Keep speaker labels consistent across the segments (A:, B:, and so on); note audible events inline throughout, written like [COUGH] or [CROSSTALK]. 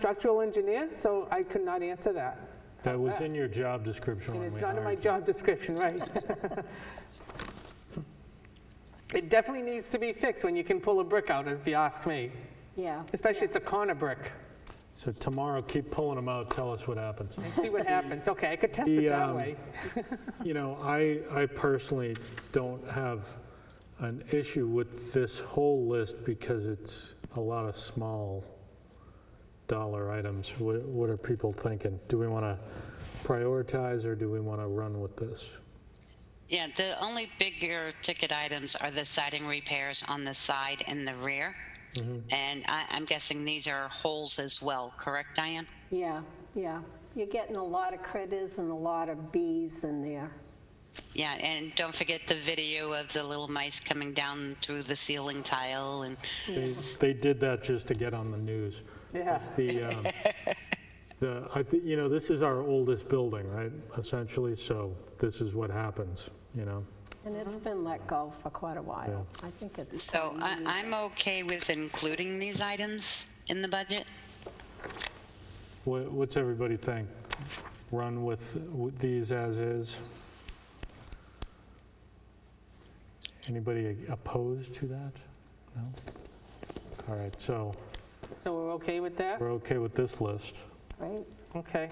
A: structural engineer, so I could not answer that.
B: That was in your job description
A: And
B: when we
A: it's not in my
B: hired you.
A: job description, right? [LAUGHS] It definitely needs to be fixed when you can pull a brick out, if you ask me.
C: Yeah.
A: Especially it's a corner brick.
B: So tomorrow, keep pulling them out, tell us what happens.
A: See what happens. Okay, I could test
B: The,
A: it that
B: um,
A: way.
B: You know, I, I personally don't have an issue with this whole list because it's a lot of small dollar items. What, what are people thinking? Do we want to prioritize or do we want to run with this?
D: Yeah, the only bigger ticket items are the siding repairs on the side and the rear. And I, I'm guessing these are holes as well, correct, Diane?
C: Yeah, yeah. You're getting a lot of critters and a lot of bees in there.
D: Yeah, and don't forget the video of the little mice coming down through the ceiling tile and,
B: They, they did that just to get on the news.
A: Yeah.
B: The, um, [LAUGHS] the, I thi- you know, this is our oldest building, right, essentially, so this is what happens, you know?
C: And it's been let go for quite a while. I think it's
D: so I,
C: time.
D: I'm okay with including these items in the budget.
B: Wha- What's everybody think? Run with with these as is? Anybody opposed to that? No? All right, so
A: So we're okay with that?
B: we're okay with this list.
C: Right?
A: Okay.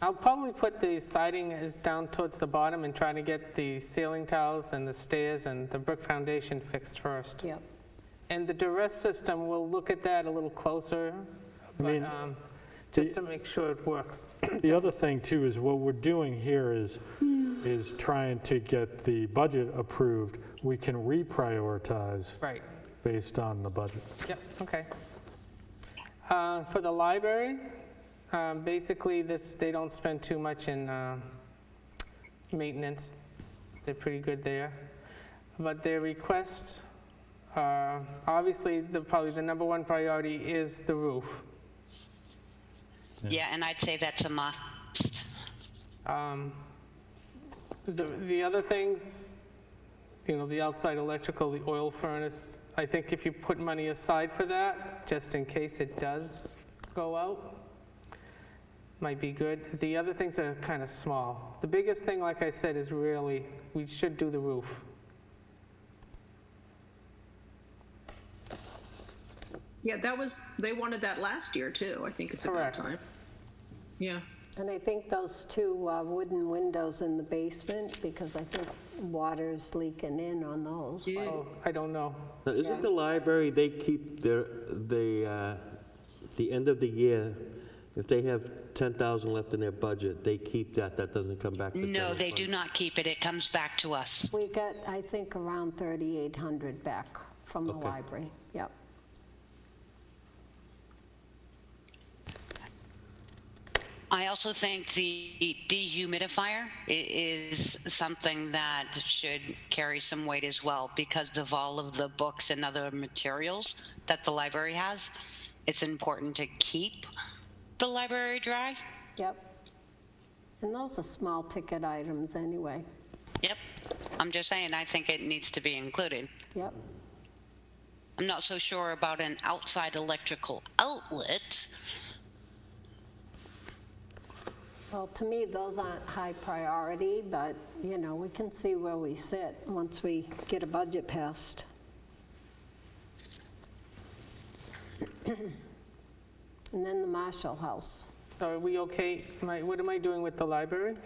A: I'll probably put the siding is down towards the bottom and try to get the ceiling tiles and the stairs and the brick foundation fixed first.
C: Yep.
A: And the duress system, we'll look at that a little closer, but
B: mean,
A: um, just to make sure it works.
B: The other thing, too, is what we're doing here is, is trying to get the budget approved. We can reprioritize
A: Right,
B: based on the budget.
A: yep, okay. Uh, For the library, um, basically this, they don't spend too much in uh, maintenance. They're pretty good there. But their requests, are- obviously, the, probably the number one priority is the roof.
D: Yeah, and I'd say that's a must.
A: Um, The the other things, you know, the outside electrical, the oil furnace, I think if you put money aside for that, just in case it does go out, might be good. The other things are kind of small. The biggest thing, like I said, is really, we should do the roof.
E: Yeah, that was, they wanted that last year too. I think it's about
A: Correct.
E: time. Yeah.
C: And I think those two uh, wooden windows in the basement, because I think water's leaking in on those. right?
A: Oh, I don't know.
F: Now,
C: Yeah.
F: isn't the library, they keep their, the, uh, the end of the year, if they have 10,000 left in their budget, they keep that, that doesn't come back to the
D: No,
F: general
D: they
F: fund.
D: do not keep it. It comes back to us.
C: We got, I think, around 3,800 back from the
F: Okay.
C: library. Yep.
D: I also think the dehumidifier i- is something that should carry some weight as well because of all of the books and other materials that the library has. It's important to keep the library dry.
C: Yep. And those are small ticket items anyway.
D: Yep. I'm just saying, I think it needs to be included.
C: Yep.
D: I'm not so sure about an outside electrical outlet.
C: Well, to me, those aren't high priority, but, you know, we can see where we sit once we get a budget passed. [CLEARS THROAT] And then the Marshall House.
A: So are we okay? Am I- What am I doing with the library?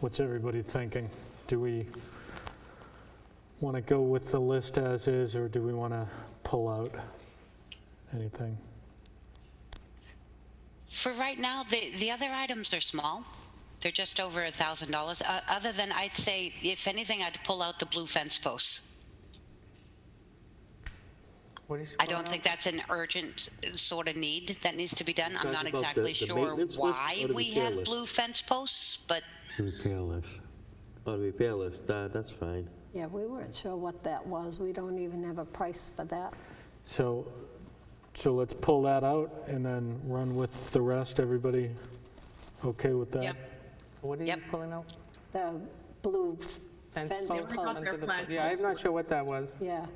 B: What's everybody thinking? Do we want to go with the list as is, or do we want to pull out anything?
D: For right now, the, the other items are small. They're just over a thousand dollars. Uh, Other than, I'd say, if anything, I'd pull out the blue fence posts.
A: What is-
D: I don't think that's an urgent uh, sort of need that needs to be done. I'm
F: Talking
D: not
F: about the-
D: exactly
F: the
D: sure
F: maintenance list
D: why
F: or the
D: we
F: repair
D: have
F: list?
D: blue fence posts, but
F: The Repair list. Oh, the repair list, that, that's fine.
C: Yeah, we weren't sure what that was. We don't even have a price for that.
B: So, so let's pull that out and then run with the rest. Everybody okay with that?
E: Yep.
A: What are you
D: Yep.
A: pulling out?
C: The blue,
A: Fence
C: Fence
A: posts
C: posts.
A: under the-
E: Flag
A: Yeah, I'm not
E: posts.
A: sure what that was.
C: yeah,